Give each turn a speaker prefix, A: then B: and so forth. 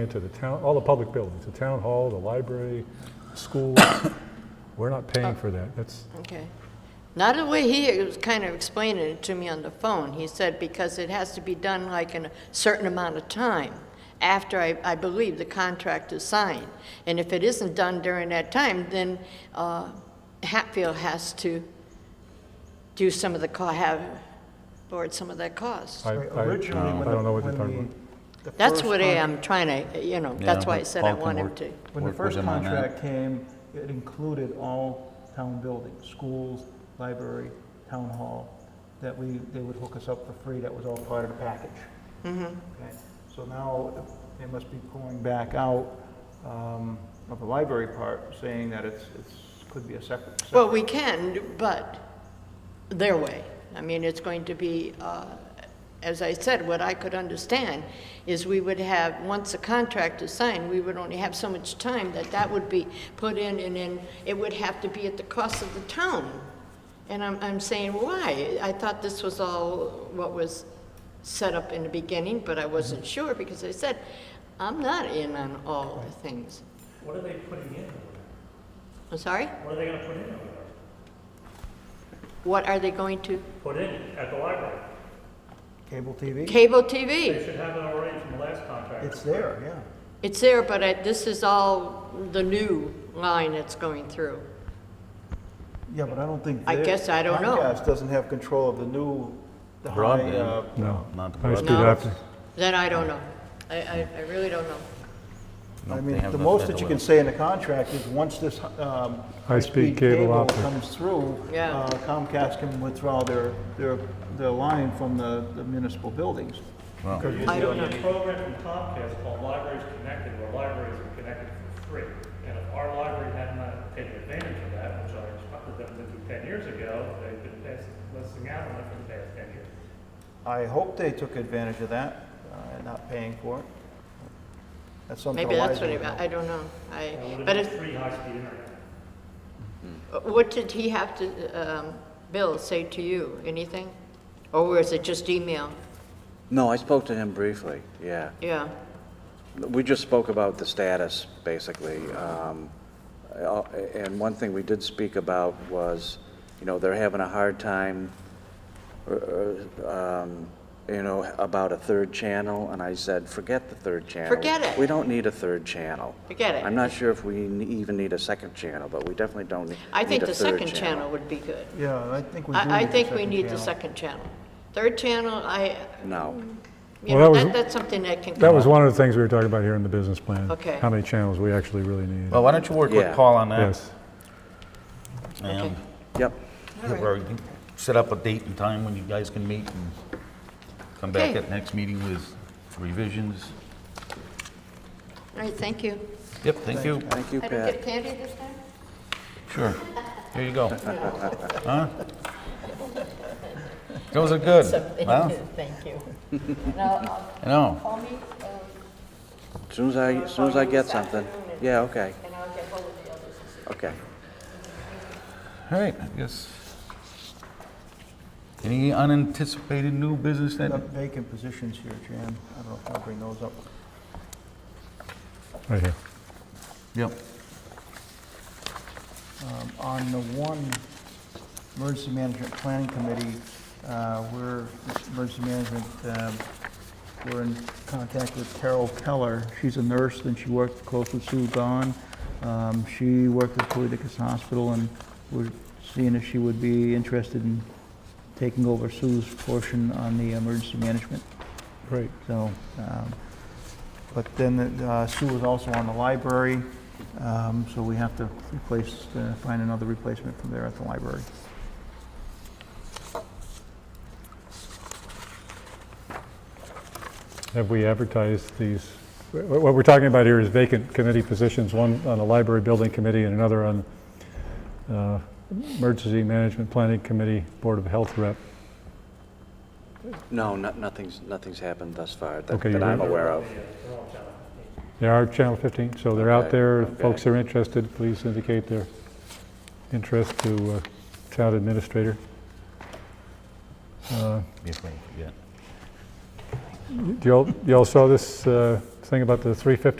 A: into the town, all the public buildings, the town hall, the library, schools. We're not paying for that. That's,
B: Okay. Not the way he was kind of explaining it to me on the phone. He said because it has to be done like in a certain amount of time after I, I believe the contract is signed. And if it isn't done during that time, then uh, Hatfield has to do some of the, co- have, board some of that cost.
A: I, I I
C: Originally, when
A: don't know what you're
C: the,
A: talking
C: when
A: about.
C: the. the
B: That's
C: first
B: what um, I
C: con-
B: am trying to, you know, that's
D: Yeah,
B: why I said I
D: Paul can
B: want him
D: work-
B: to.
C: When the
D: work with
C: first
D: him on that.
C: contract came, it included all town buildings, schools, library, town hall, that we, they would hook us up for free, that was all part of the package.
B: Mm-hmm.
C: Okay, So now, they must be pulling back out, um, of the library part, saying that it's, it's, could be a separate.
B: Well, we can, but their way. I mean, it's going to be, uh, as I said, what I could understand is we would have, once the contract is signed, we would only have so much time that that would be put in, and then it would have to be at the cost of the town. And I'm, I'm saying, why? I thought this was all what was set up in the beginning, but I wasn't sure, because I said, I'm not in on all the things.
E: What are they putting in? over there?
B: I'm sorry?
E: What are they gonna put in over there?
B: What are they going to?
E: Put in at the library?
C: Cable TV?
B: Cable TV?
E: They should have it already from the last contract.
C: It's there, yeah.
B: It's there, but I- this is all the new line that's going through.
C: Yeah, but I don't think.
B: I
C: their-
B: guess I don't know.
C: Comcast doesn't have control of the new, the high, uh,
D: Broadband.
A: No.
D: Not the
A: I speak
B: No.
A: after.
B: Then I don't know. I, I, I really don't know.
D: No,
C: I
D: they
C: mean,
D: have
C: the
D: the
C: most that you
D: federal.
C: can say in the contract is, once this, um,
A: High-speed
C: high-speed
A: cable
C: cable
A: optic.
C: comes through,
B: Yeah.
C: uh, Comcast can withdraw their, their, their line from the the municipal buildings.
D: Well,
E: There's
B: I don't
E: a program from Comcast called Libraries Connected, where libraries are connected for free. And if our library had not taken advantage of that, which I instructed them to do ten years ago, they've been pass- missing out on it for the past ten years.
C: I hope they took advantage of that, uh, and not paying for it. That's something
B: Maybe that's
C: Eliza
B: what
C: would
B: it,
C: know.
B: I don't know. I,
E: And would've
B: but
E: been
B: if,
E: Free high-speed internet.
B: what did he have to, um, Bill say to you? Anything? Or was it just email?
F: No, I spoke to him briefly, yeah.
B: Yeah.
F: We just spoke about the status, basically. Um, uh, And one thing we did speak about was, you know, they're having a hard time, uh, um, you know, about a third channel, and I said, forget the third channel.
B: Forget it.
F: We don't need a third channel.
B: Forget it.
F: I'm not sure if we ne- even need a second channel, but we definitely don't ne- need a
B: I
F: third
B: think the second channel would be good.
C: Yeah, I think we do need the
B: I, I think we
C: second
B: need the
C: channel.
B: second channel. Third channel, I,
F: No.
B: you
A: Well,
B: know,
A: that was-
B: that, that's something that can.
A: That was one of the things we were talking about here in the business plan.
B: Okay.
A: How many channels we actually really need.
D: well, uh, why don't you work with
F: Yeah.
D: Paul on that?
A: Yes.
D: And
F: Yep,
B: All right.
D: where you can set up a date and time when you guys can meet and come back
B: Okay.
D: at next meeting with revisions.
B: All right, thank you.
D: Yep, thank you.
F: thank you,
B: I don't
F: Pat.
B: get candy this time?
D: Sure. Here you go. Huh? Those are good. Well,
B: Thank you.
D: I know.
B: Call me,
F: As Soon as I, as soon as I get something. Yeah, okay,
B: and I'll get hold of the others.
F: okay.
D: All right, I guess. Any unanticipated new business
C: Got
D: that?
C: Vacant positions here, Jan. I don't know if I'll bring those up.
A: Right here.
D: Yep.
C: Um, On the one emergency management planning committee, uh, we're, this emergency management, um, we're in contact with Carol Keller. She's a nurse and she worked close with Sue Gahn. Um, She worked at Colitikas Hospital and we're seeing if she would be interested in taking over Sue's portion on the emergency management.
A: Great.
C: So, um, but then uh, Sue was also on the library, um, so we have to replace, uh, find another replacement from there at the library.
A: Have we advertised these? wh- What we're talking about here is vacant committee positions, one on the library building committee and another on uh, emergency management planning committee, board of health rep.
F: No, no- nothing's, nothing's happened thus far that
A: Okay,
F: that
A: you're
F: I'm
A: good.
F: aware of.
A: They are Channel 15, so they're out
F: Okay,
A: there. If
F: okay.
A: Folks are interested, please indicate their interest to uh, town administrator. Uh,
D: If I forget.
A: You all, you all saw this uh, thing about the 350